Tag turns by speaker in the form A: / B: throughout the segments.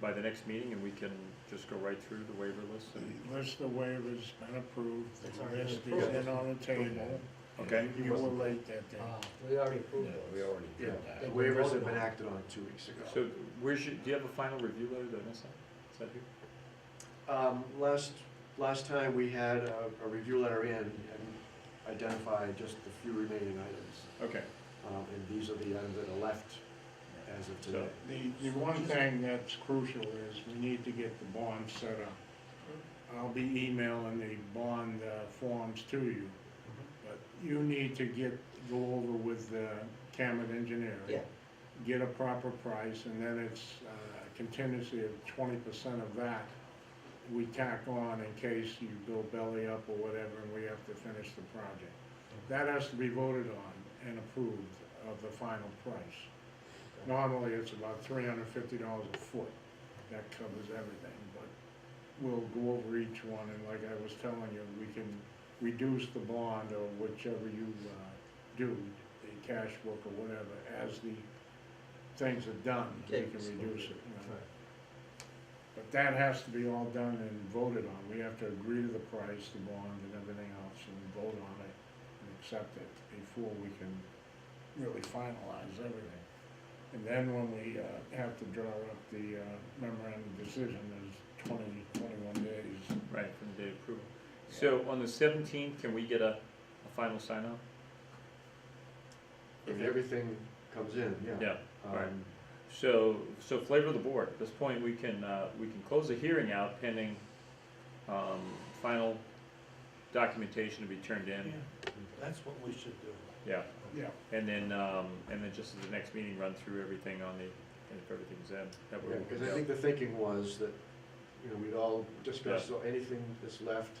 A: by the next meeting and we can just go right through the waiver list and,
B: The List of waivers been approved,
C: It's
B: the
C: already
B: list is
C: approved.
B: in on the table.
A: okay?
B: You were late that day.
C: Ah, We already approved
D: Yeah,
C: those.
D: we already
E: Yeah,
D: did
C: They
D: that.
C: were
E: waivers have
C: voted
E: been
C: on.
E: acted on two weeks ago.
A: So where's your, do you have a final review letter that I sent? Is that here?
E: Um, last, last time we had a, a review letter in and identified just the few remaining items.
A: Okay,
E: Um, and these are the items that are left as of today.
B: The, the one thing that's crucial is we need to get the bond set up. I'll be emailing the bond uh, forms to you, but you need to get, go over with the Camet engineer.
C: Yeah,
B: Get a proper price, and then it's uh, a contingency of twenty percent of that we tack on in case you go belly up or whatever, and we have to finish the project. That has to be voted on and approved of the final price. Normally, it's about three hundred fifty dollars a foot, that covers everything, but we'll go over each one, and like I was telling you, we can reduce the bond or whichever you, uh, do, the cash book or whatever, as the things are done, we can
C: Okay.
B: reduce it, you know.
C: Right.
B: But that has to be all done and voted on, we have to agree to the price, the bond and everything else, and vote on it and accept it before we can really finalize everything. And then when we uh, have to draw up the uh, memorandum of decision, there's 20, 21 days.
A: right, from the date of approval. So on the seventeenth, can we get a, a final sign off?
E: If everything comes in, yeah.
A: Yeah, right.
E: Um,
A: So, so flavor of the board, at this point, we can, uh, we can close the hearing out pending, um, final documentation to be turned in.
C: that's what we should do.
A: Yeah,
B: Yeah.
A: and then, um, and then just at the next meeting, run through everything on the, and if everything's in, that
E: Yeah,
A: way we
E: because
A: can
E: I
A: go.
E: think the thinking was that, you know, we'd all discuss anything that's left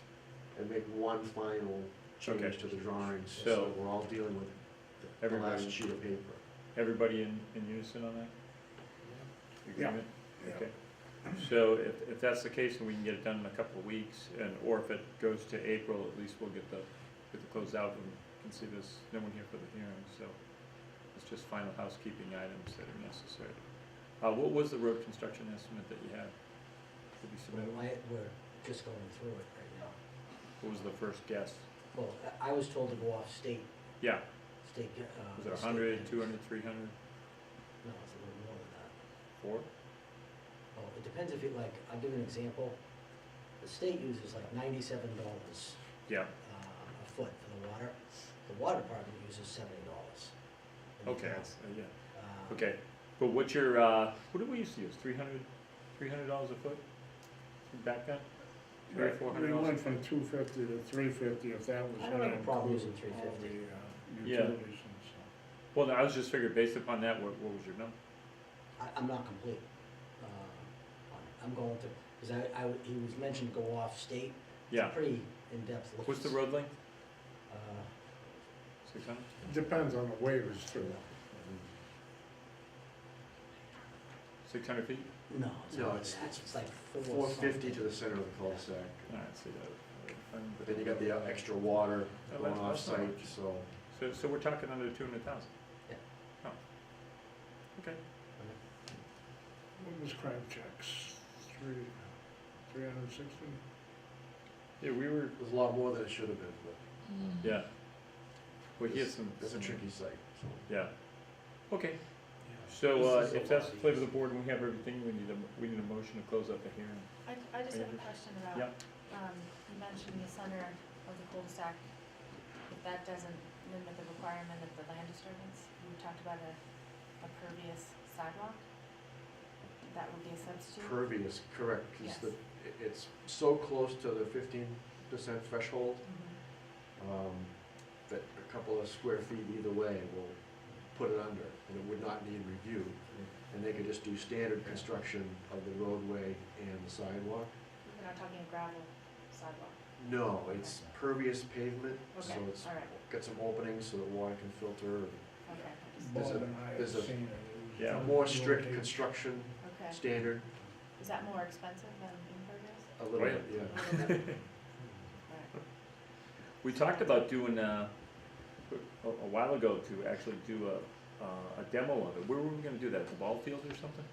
E: and make one final
A: Okay.
E: change to the drawings,
A: So-
E: so that we're all dealing with the- the
A: Everybody-
E: last sheet of paper.
A: Everybody in, in unison on that?
B: Yeah.
A: Agreement? Okay. So if, if that's the case, then we can get it done in a couple of weeks, and, or if it goes to April, at least we'll get the, get the close out and can see this, no one here for the hearing, so it's just final housekeeping items that are necessary. Uh, what was the road construction estimate that you had? Did you
C: So
A: submit,
C: I, we're just going through it right now.
A: what was the first guess?
C: Well, I- I was told to go off state,
A: Yeah,
C: state, uh.
A: was it a
C: state
A: hundred,
C: standards.
A: two hundred, three hundred,
C: No, it's a little more than that.
A: four?
C: Well, it depends if you, like, I'll give you an example. The state uses like ninety-seven dollars
A: Yeah,
C: uh, a foot for the water. The water department uses seventy dollars.
A: okay, uh, yeah. Okay, but what's your, uh, what did we used to use, three hundred, three hundred dollars a foot back then? Three or four hundred
B: We
A: dollars?
B: went from 250 to 350 if that was
C: I
B: going
C: don't
B: to
C: have a problem
B: include
C: using 350.
B: all the
A: Yeah.
B: uh, utilities and stuff.
A: Well, no, I was just figuring, based upon that, what, what was your number?
C: I, I'm not complete, uh, on it. I'm going to, cause I, I, w- he was mentioned to go off state. It's a
A: Yeah,
C: Pretty in-depth. look.
A: what's the road length,
C: Uh,
A: six hundred?
B: Depends on the waivers too.
A: Six hundred feet?
C: no, it's
E: No,
C: not like
E: it's-
C: that. It's like four.
E: Four fifty to
C: something.
E: the center of the cul-de-sac,
A: Alright, so that.
E: but then you got the uh, extra water
A: Oh,
E: going
A: that's- that's not
E: off-site,
A: much.
E: so.
A: So, so we're talking under two hundred thousand?
C: Yeah.
A: Oh, okay,
B: What was Crabtree's? Three, 360?
A: yeah, we were,
E: There's a lot more than it should have been, but
A: yeah. Well, he had
E: It's-
A: some.
E: it's a
A: some-
E: tricky site, so.
A: Yeah, okay, so,
C: This
A: uh,
C: is a
A: if that's
C: lot
A: the flavor of the
C: easier.
A: board, and we have everything, we need a, we need a motion to close up the hearing.
F: I, I just have a question about,
A: Yeah.
F: um, you mentioned the center of the cul-de-sac, if that doesn't limit the requirement of the land disturbance, you talked about a, a pervious sidewalk, that would be a substitute?
E: Pervious, correct, because
F: Yes.
E: the, it- it's so close to the fifteen percent threshold,
F: Mhm.
E: um, that a couple of square feet either way will put it under, and it would not need review. And they could just do standard construction of the roadway and the sidewalk.
F: We're not talking a gravel sidewalk,
E: No, it's pervious pavement, so
F: Okay,
E: it's,
F: all right.
E: got some openings so that water can filter.
F: okay, I just-
E: There's
B: Bob
E: a-
B: and I have
E: there's a-
B: seen it. It was
A: Yeah.
E: A
B: on
E: more
B: the
E: strict
B: road.
E: construction
F: okay,
E: standard,
F: is that more expensive than impervious?
E: a little
A: Right.
E: bit, yeah.
F: Right.
A: We talked about doing, uh, a, a while ago to actually do a, uh, a demo of it. Where were we gonna do that, the ball field or something?